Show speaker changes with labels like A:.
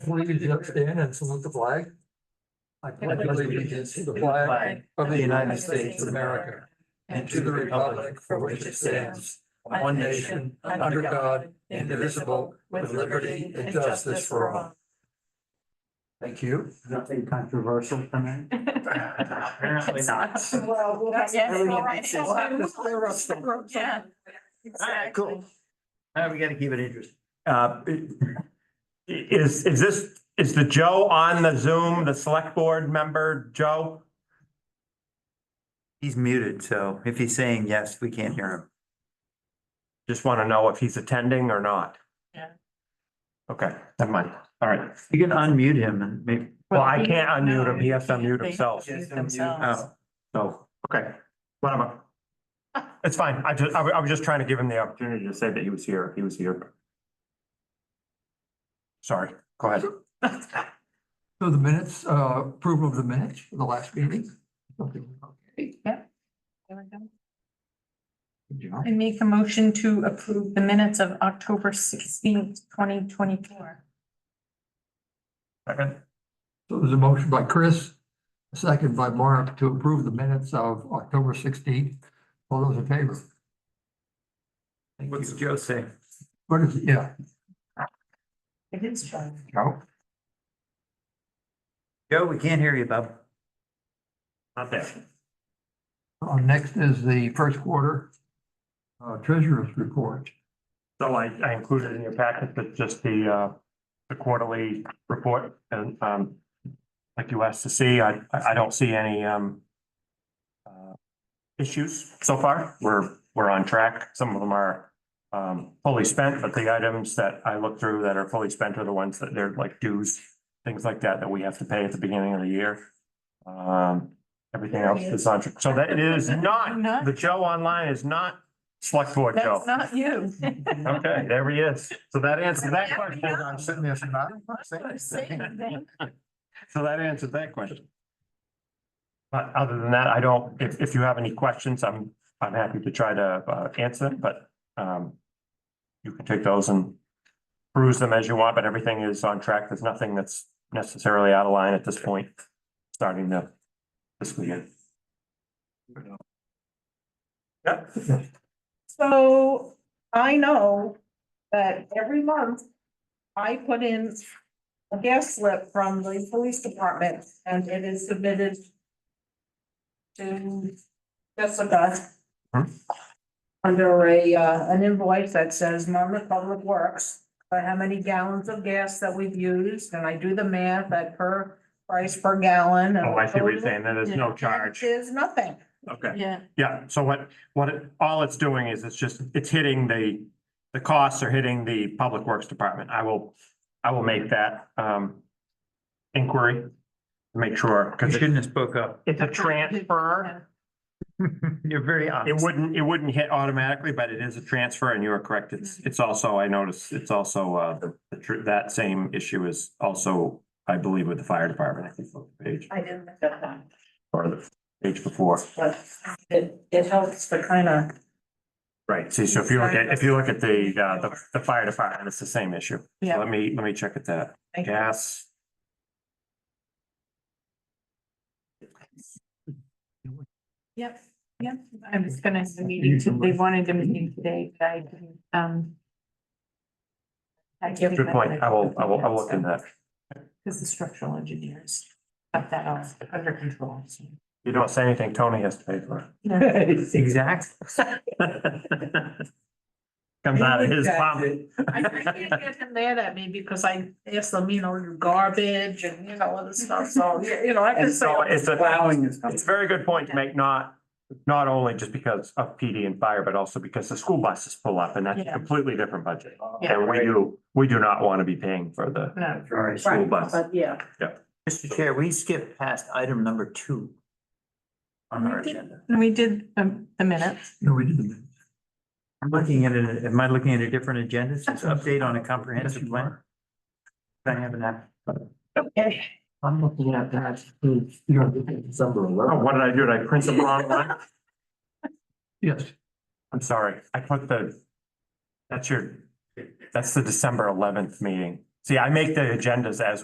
A: Will you just stand and salute the flag? I pledge allegiance to the flag of the United States of America and to the republic for which it stands, one nation, under God, indivisible, with liberty and justice for all. Thank you.
B: Nothing controversial tonight? Apparently not. Uh,
C: Well, we'll have.
D: Yes,
B: Everything
D: all right.
B: makes sense.
D: All
C: Yeah.
B: right, cool. Uh, we gotta keep it interesting.
E: Uh, Is, is this, is the Joe on the Zoom, the select board member, Joe?
B: He's muted, so if he's saying yes, we can't hear him.
E: Just want to know if he's attending or not.
D: Yeah.
E: Okay, never mind. All right.
B: You can unmute him and maybe,
E: Well, I can't unmute him. He has to unmute himself.
D: They have to mute themselves.
B: oh,
E: So, okay, whatever. It's fine. I just, I wa- I was just trying to give him the opportunity to say that he was here. He was here. Sorry, go ahead.
A: So the minutes, uh, approval of the minutes for the last meeting. Good
D: There we go.
A: job.
D: I make a motion to approve the minutes of October sixteenth, twenty twenty-four.
E: Second.
A: So there's a motion by Chris, a second by Mark to approve the minutes of October sixteenth. All those in favor? Thank
B: what's
A: you.
B: Joe say?
A: What is, yeah,
D: It is true.
A: Joe?
B: Joe, we can't hear you, bub.
E: Not there.
A: Uh, next is the first quarter uh, treasurer's report.
E: So I, I included in your packet, but just the, uh, the quarterly report and, um, like you asked to see, I, I don't see any, um, uh, issues so far. We're, we're on track. Some of them are, um, fully spent, but the items that I looked through that are fully spent are the ones that they're like dues, things like that, that we have to pay at the beginning of the year. Um, everything else is on, track. so that is not, the Joe online is not select board Joe.
D: That's not you.
E: Okay, there he is. So that answered that question.
A: I'm sitting there, saying, "I
D: Same thing.
E: So that answered that question. But other than that, I don't, if, if you have any questions, I'm, I'm happy to try to, uh, answer them, but, um, you can take those and peruse them as you want, but everything is on track. There's nothing that's necessarily out of line at this point, starting the fiscal year. Yeah,
F: So I know that every month I put in a gas slip from the police department and it is submitted to Jessica
E: Hmm.
F: under a, uh, an invoice that says Monmouth Public Works, by how many gallons of gas that we've used, and I do the math at per price per gallon. and
E: oh, I see what you're saying. There's no charge.
F: There's nothing.
E: Okay.
D: Yeah,
E: Yeah, so what, what, it- all it's doing is it's just, it's hitting the, the costs are hitting the Public Works Department. I will, I will make that, um, inquiry. to Make sure,
B: You
E: because
B: shouldn't have spoke up.
E: it's a transfer.
B: You're very
E: It
B: honest.
E: wouldn't, it wouldn't hit automatically, but it is a transfer and you are correct. It's, it's also, I noticed, it's also, uh, the tr- that same issue is also, I believe, with the fire department. I think it's on the page
F: I didn't look at that.
E: or the page before.
F: but it, it helps to kind of.
E: Right, see, so if you look at, if you look at the, uh, the, the fire department, it's the same issue. So
D: Yeah.
E: Let me, let me check at that. Gas,
D: yep, yep. I was gonna have a meeting, to- they wanted a meeting today, but I didn't, um. I didn't-
E: good point. I will, I will, I'll look in that.
D: Because the structural engineers got that all under control. so.
E: You don't say anything, Tony has to pay for
B: Exactly.
E: it. Comes out of his pocket.
F: I, I can't get him mad at me because I asked them, you know, your garbage and, you know, all this stuff, so, you you know, I can
E: And
F: say.
E: so it's a,
B: Plowing is.
E: it's a very good point to make, not, not only just because of PD and fire, but also because the school buses pull up and that's a
D: Yeah.
E: completely different budget.
D: Yeah.
E: And we do, we do not want to be paying for the
D: No,
B: Sorry.
E: school bus.
F: But yeah,
B: Mr. Chair, we skipped past item number two on our agenda.
D: we did um, the minutes.
A: No, we didn't.
B: I'm looking at it, am I looking at a different agenda? It says update on a comprehensive plan. Can I have an app?
A: I'm looking at that. hmm, You know, December
E: Oh,
A: eleventh.
E: what did I do? Did I print the wrong one?
A: Yes,
E: I'm sorry, I put the, that's your, that's the December eleventh meeting. See, I make the agendas as